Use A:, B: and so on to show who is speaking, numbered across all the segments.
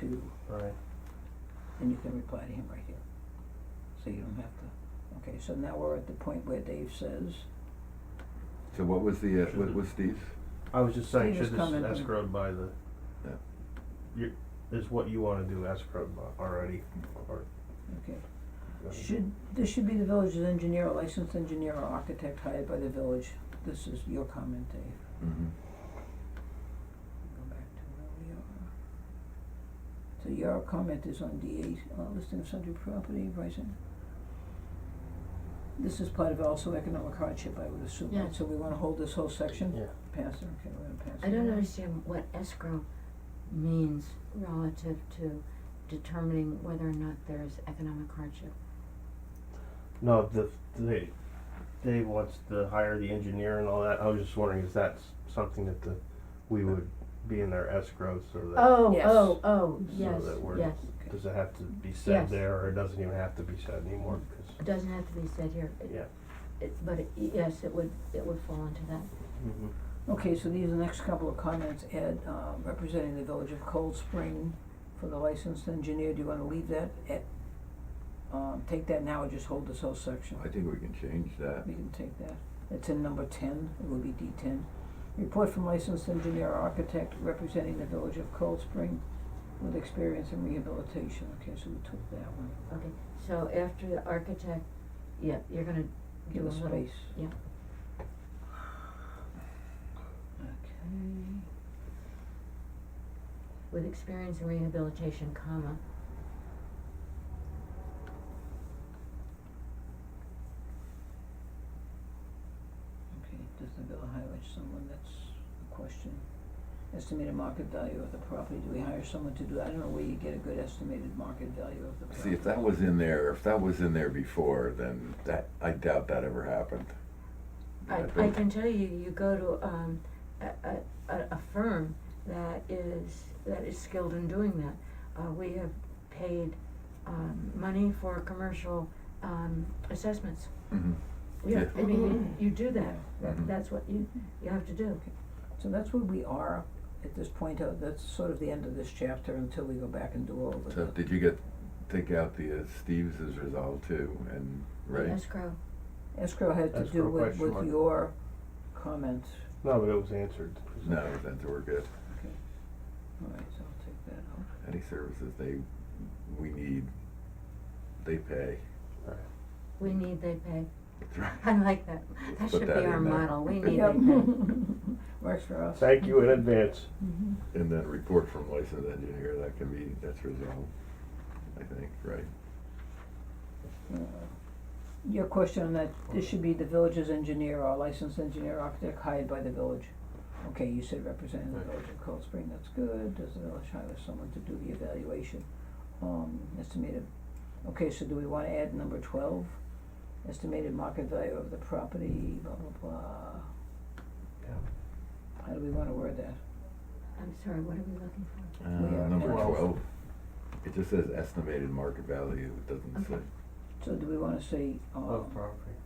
A: to,
B: Right,
A: and you can reply to him right here. So you don't have to, okay, so now we're at the point where Dave says,
C: So what was the, uh,
B: Should
C: what
B: the-
C: was Steve's?
B: I was just saying,
A: Steve is
B: should this
A: coming.
B: escrowed by the?
C: Yeah.
B: You, is what you wanna do escrowed by already, or?
A: okay, should, this should be the village's engineer, or licensed engineer or architect hired by the village. This is your comment, Dave.
C: Mm-hmm.
A: Go back to where we are. So your comment is on D eight, uh, listing of subject property, pricing. This is part of also economic hardship, I would assume, right?
D: Yeah.
A: So we wanna hold this whole section?
B: Yeah.
A: Pass it, okay, we're gonna pass it.
D: I don't
A: now.
D: understand what escrow means relative to determining whether or not there's economic hardship.
B: No, the, they, Dave wants to hire the engineer and all that, I was just wondering, is that s- something that the, we would be in their escrow, so that,
D: Oh,
A: Yes.
D: oh, oh,
B: So
D: yes,
B: that we're-
D: yes.
B: does it have to be
D: Yes. Mm-hmm.
B: said there, or it doesn't even have to be said anymore, 'cause-
D: It doesn't have to be said here. It-
B: Yeah.
D: It, but it, yes, it would, it would fall into that.
C: Mm-hmm.
A: Okay, so these are the next couple of comments, Ed, uh, representing the village of Cold Spring for the licensed engineer, do you wanna leave that at, um, take that now or just hold this whole section?
C: I think we can change that.
A: We can take that. It's in number ten, it will be D ten. Report from licensed engineer or architect representing the village of Cold Spring with experience in rehabilitation. Okay, so we took that one.
D: Okay, so after the architect, yeah, you're gonna do
A: Give
D: a
A: us
D: little.
A: space.
D: Yeah.
A: Okay.
D: With experience in rehabilitation, comma,
A: Okay, does the bill highlight someone, that's a question. Estimated market value of the property, do we hire someone to do, that? I don't know where you get a good estimated market value of the
C: See,
A: property.
C: if that was in there, if that was in there before, then that, I doubt that ever happened.
D: I, I
C: think-
D: can tell you, you go to, um, a, a, a a firm that is, that is skilled in doing that. Uh, we have paid, um, money for commercial, um, assessments.
C: Mhm.
D: Yeah,
C: Yeah.
D: I mean, you, you do that,
C: Mhm.
B: Mm-hmm.
D: that, that's what you, you have to do.
A: So that's where we are at this point, uh, that's sort of the end of this chapter until we go back and do all of
C: So
A: the,
C: did you get, take out the, uh, Steve's is resolved too, and, right?
D: Escrow,
A: escrow had to do
B: Escrow
A: with,
B: question
A: with
B: mark.
A: your comment,
B: no, but it was answered. 'cause-
C: No, then we're good.
A: alright, so I'll take that out.
C: Any services they, we need, they pay.
B: Right.
D: we need they pay,
C: That's right.
D: I like that, that
C: Put
D: should be
C: that
D: our
C: in there.
D: model, we need they pay.
A: Works for us.
B: Thank you in advance.
D: Mm-hmm.
A: Mhm.
C: And then report from licensed engineer, that can be, that's resolved, I think, right?
A: Uh, Your question on that, this should be the village's engineer or licensed engineer architect hired by the village. Okay, you said representing the
B: Right.
A: village of Cold Spring, that's good, does the village hire someone to do the evaluation, um, estimated? Okay, so do we wanna add number twelve, estimated market value of the property, blah, blah, blah,
B: Yeah.
A: how do we wanna word that?
D: I'm sorry, what are we looking for?
C: Uh,
A: We are
C: number
B: at-
C: twelve. It just says estimated market value, it doesn't say.
D: Okay.
A: So do we wanna say, um,
B: Of property.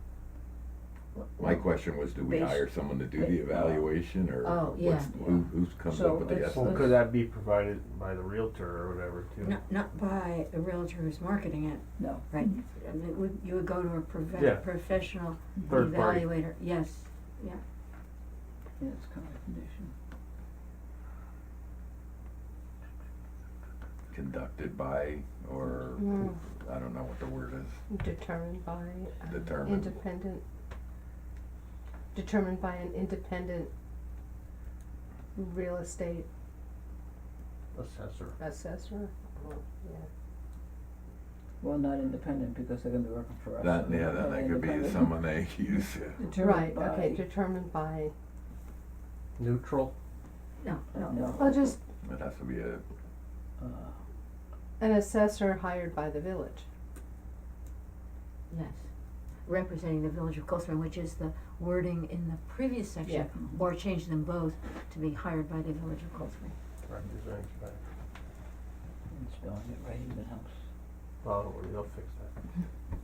C: My question was, do we
A: Based-
C: hire someone to do
A: ba-
C: the evaluation, or
D: Oh, yeah.
C: what's, who, who comes
A: So
C: up with the
A: it's-
C: estimate?
B: Well,
A: Let's-
B: could that be provided by the realtor or whatever too?
D: Not, not by a realtor who's marketing it,
A: no,
D: right? I mean, would, you would go to a
B: Yeah.
D: profe- professional
B: Third party.
D: evaluator, yes, yeah,
A: yeah, it's kind of condition.
C: Conducted by, or,
A: Hmm.
E: Mm.
C: I don't know what the word is,
E: Determined by um,
C: Determined.
E: independent. Determined by an independent real estate
B: Assessor.
E: assessor. Oh, yeah.
A: Well, not independent, because they're gonna be working for us.
C: that,
A: so
C: yeah,
A: they're
C: that,
A: not
C: that could be
A: independent.
C: someone they use.
A: Determined
E: right. Okay.
A: by-
E: Determined by.
B: Neutral.
D: no, no,
A: No.
E: Well, just
C: It has to be a,
A: Uh,
E: an assessor hired by the village.
D: yes. Representing the village of Cold Spring, which is the wording in the previous section,
A: mhm.
D: or change them both to be hired by the village of Cold Spring.
B: Represents by.
A: And spelling it right even helps.
B: Well, don't worry, they'll fix that.